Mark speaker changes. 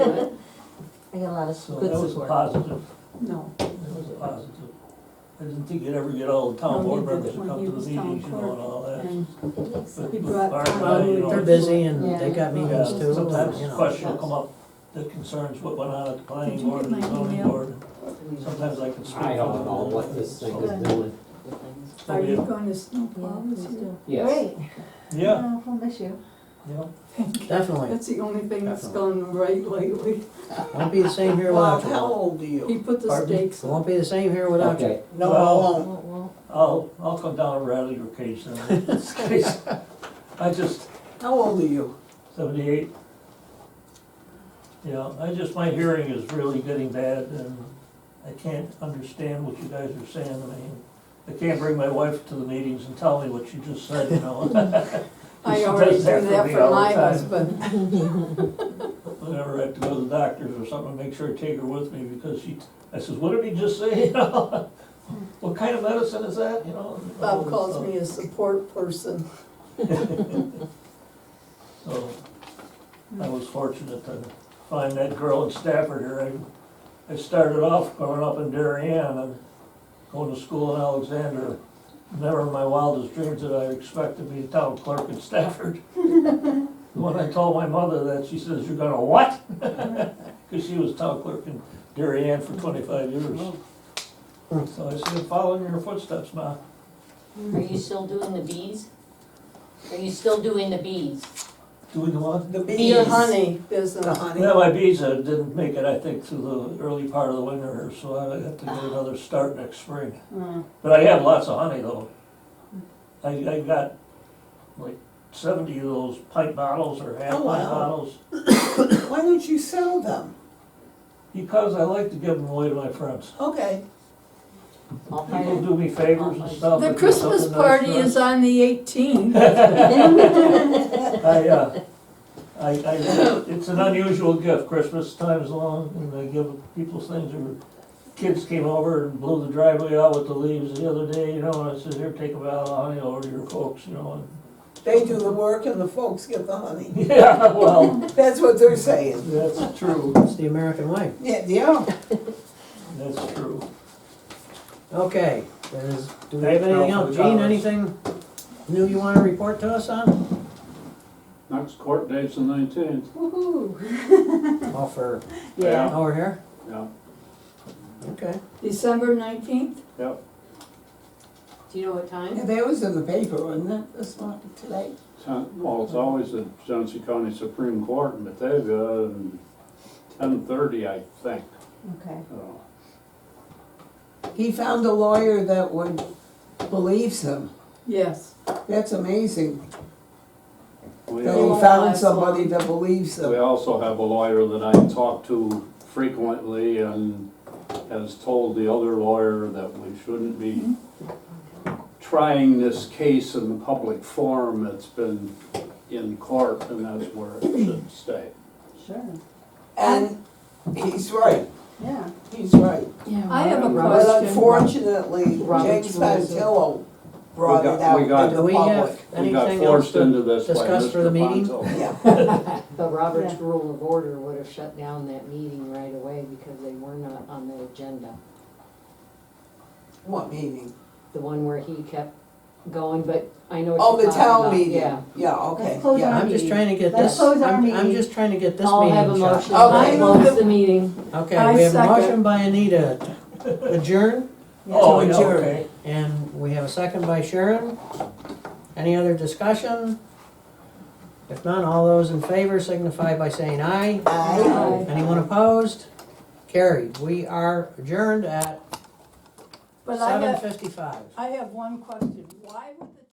Speaker 1: I got a lot of
Speaker 2: So
Speaker 1: good
Speaker 2: that was a
Speaker 1: support.
Speaker 2: positive,
Speaker 3: No.
Speaker 2: that was a positive. I didn't think you'd ever get all the town
Speaker 3: No,
Speaker 2: board
Speaker 3: he did it
Speaker 2: members to
Speaker 3: when
Speaker 2: come
Speaker 3: he
Speaker 2: to the
Speaker 3: was town
Speaker 2: meetings, you know, and
Speaker 3: clerk,
Speaker 2: all that.
Speaker 3: And
Speaker 1: It makes sense.
Speaker 3: he
Speaker 2: But
Speaker 3: brought
Speaker 2: fire
Speaker 3: town
Speaker 2: money, you
Speaker 3: board-
Speaker 4: They're
Speaker 2: know,
Speaker 4: busy and they
Speaker 1: Yeah.
Speaker 4: got meetings
Speaker 2: Yeah,
Speaker 4: too,
Speaker 2: sometimes
Speaker 4: you know.
Speaker 2: question will come up that concerns what went on at the
Speaker 3: Did
Speaker 2: planning
Speaker 3: you
Speaker 2: board
Speaker 3: get
Speaker 2: and
Speaker 3: my
Speaker 2: zoning
Speaker 3: email?
Speaker 2: board. Sometimes I can speak.
Speaker 5: I
Speaker 2: for
Speaker 5: don't
Speaker 2: them.
Speaker 5: know what this thing
Speaker 2: So,
Speaker 5: is doing.
Speaker 3: Are you
Speaker 2: Yeah.
Speaker 3: going to snowplow
Speaker 1: Yeah,
Speaker 3: this
Speaker 1: please
Speaker 3: year?
Speaker 1: do.
Speaker 5: Yes,
Speaker 1: Great.
Speaker 2: Yeah,
Speaker 1: Oh, We'll miss you.
Speaker 2: yeah.
Speaker 5: definitely.
Speaker 3: That's the only thing that's gone right lately.
Speaker 4: Won't be the same here
Speaker 6: Bob,
Speaker 4: without
Speaker 6: how
Speaker 4: you.
Speaker 6: old are
Speaker 3: He
Speaker 6: you?
Speaker 3: put the
Speaker 4: Pardon?
Speaker 3: stakes up.
Speaker 4: Won't be the same here without you.
Speaker 5: Okay,
Speaker 6: No, I
Speaker 2: Well-
Speaker 7: Um,
Speaker 6: won't.
Speaker 1: Won't, won't.
Speaker 2: I'll, I'll come down and rattle your cage then. This case, I just,
Speaker 6: How old are you?
Speaker 2: seventy-eight. Yeah, I just, my hearing is really getting bad and I can't understand what you guys are saying. I mean, I can't bring my wife to the meetings and tell me what you just said, you know? She
Speaker 3: I
Speaker 2: does
Speaker 3: already do
Speaker 2: that for
Speaker 3: that
Speaker 2: me
Speaker 3: for
Speaker 2: all the
Speaker 3: my
Speaker 2: time.
Speaker 3: husband.
Speaker 2: Whenever I have to go to the doctors or something, make sure I take her with me because she, I says, what did he just say? You know, What kind of medicine is that, you know?
Speaker 3: Bob calls me a support person.
Speaker 2: So, I was fortunate to find that girl in Stafford here. I, I started off growing up in Darien and going to school in Alexander. Never in my wildest dreams did I expect to be a town clerk in Stafford. When I told my mother that, she says, you're gonna what? Cause she was town clerk in Darien for twenty-five years. So I said, following your footsteps, Ma.
Speaker 7: Are you still doing the bees? Are you still doing the bees?
Speaker 2: Doing the what?
Speaker 6: The bees.
Speaker 3: Your honey business.
Speaker 6: The honey.
Speaker 2: Yeah, my visa uh, didn't make it, I think, through the early part of the winter, here, so I have to get another start next spring.
Speaker 6: Hmm.
Speaker 3: Uh,
Speaker 2: But I have lots of honey though. I, I got like seventy of those pint bottles or half
Speaker 6: Oh,
Speaker 2: pint
Speaker 6: wow.
Speaker 2: bottles.
Speaker 6: Why don't you sell them?
Speaker 2: Because I like to give them away to my friends.
Speaker 6: Okay.
Speaker 7: I'll find
Speaker 2: People
Speaker 7: it.
Speaker 2: do me favors and stuff.
Speaker 3: The
Speaker 2: and do
Speaker 3: Christmas
Speaker 2: something nice
Speaker 3: party
Speaker 2: for us.
Speaker 3: is on the eighteenth.
Speaker 2: I, uh, I, I, it's an unusual gift, Christmas time is long, and I give people things, or kids came over and blew the driveway out with the leaves the other day, you know, and I said, here, take a bottle of honey over to your folks, you know,
Speaker 6: They do the work and the folks get the honey.
Speaker 2: and, yeah, well,
Speaker 6: That's what they're saying.
Speaker 2: that's true,
Speaker 4: It's the American way.
Speaker 6: Yeah, yeah.
Speaker 2: that's true.
Speaker 4: Okay, is, do we
Speaker 2: Thank
Speaker 4: have
Speaker 2: you
Speaker 4: anything
Speaker 2: all for
Speaker 4: else?
Speaker 2: the
Speaker 4: Gene,
Speaker 2: comments.
Speaker 4: anything new you wanna report to us on?
Speaker 8: Next court date's the nineteenth.
Speaker 1: Woohoo.
Speaker 4: All for,
Speaker 3: Yeah,
Speaker 4: over here?
Speaker 8: Yeah,
Speaker 4: Okay.
Speaker 3: December nineteenth.
Speaker 8: yeah.
Speaker 7: Do you know what time?
Speaker 6: Yeah, that was in the paper, wasn't it, this morning, today?
Speaker 8: Ten- Well, it's always the Johnson County Supreme Court in Batavia, ten thirty, I uh, think.
Speaker 1: Okay.
Speaker 8: So,
Speaker 6: He found a lawyer that would, believes him.
Speaker 3: Yes.
Speaker 6: That's amazing.
Speaker 8: We
Speaker 6: That
Speaker 3: Yeah.
Speaker 6: he
Speaker 8: al-
Speaker 6: found somebody that believes
Speaker 8: we
Speaker 6: him.
Speaker 8: also have a lawyer that I talk to frequently and has told the other lawyer that we shouldn't be trying this case in the public forum. It's been in court and that's where it should stay.
Speaker 3: Sure.
Speaker 6: And he's right,
Speaker 3: Yeah.
Speaker 6: he's right.
Speaker 3: I have a
Speaker 6: But
Speaker 3: question.
Speaker 6: unfortunately, James Fantillo brought
Speaker 8: We got-
Speaker 6: it out
Speaker 8: we
Speaker 6: into
Speaker 8: got-
Speaker 6: the
Speaker 4: Do we have
Speaker 6: public.
Speaker 8: We got
Speaker 4: anything else
Speaker 8: forced into
Speaker 4: to
Speaker 8: this by
Speaker 4: discuss for the
Speaker 8: Mr.
Speaker 4: meeting?
Speaker 8: Ponto.
Speaker 6: Yeah.
Speaker 7: But Robert's rule of order would have shut down that meeting right away because they were not on the agenda.
Speaker 6: What meeting?
Speaker 7: The one where he kept going, but I know
Speaker 6: Oh,
Speaker 7: what
Speaker 6: the
Speaker 7: you're talking
Speaker 6: town
Speaker 7: about,
Speaker 6: meeting?
Speaker 7: yeah.
Speaker 6: Yeah, okay,
Speaker 1: Let's close our-
Speaker 6: yeah.
Speaker 4: I'm just trying to get
Speaker 1: Let's
Speaker 4: this,
Speaker 1: close our
Speaker 4: I'm, I'm
Speaker 1: meeting.
Speaker 4: just trying to get this
Speaker 7: I'll have a
Speaker 4: meeting
Speaker 7: motion
Speaker 4: shut.
Speaker 7: that
Speaker 6: Okay.
Speaker 7: closes the meeting.
Speaker 4: Okay,
Speaker 3: I
Speaker 4: we have a motion
Speaker 3: second.
Speaker 4: by Anita, to adjourn,
Speaker 2: Oh,
Speaker 6: To
Speaker 2: yeah,
Speaker 6: adjourn.
Speaker 2: okay.
Speaker 4: and we have a second by Sharon. Any other discussion? If none, all those in favor signify by saying aye.
Speaker 6: Aye.
Speaker 4: Anyone opposed? Carried. We are adjourned at
Speaker 3: But I
Speaker 4: seven
Speaker 3: have,
Speaker 4: fifty-five.
Speaker 3: I have one question. Why would the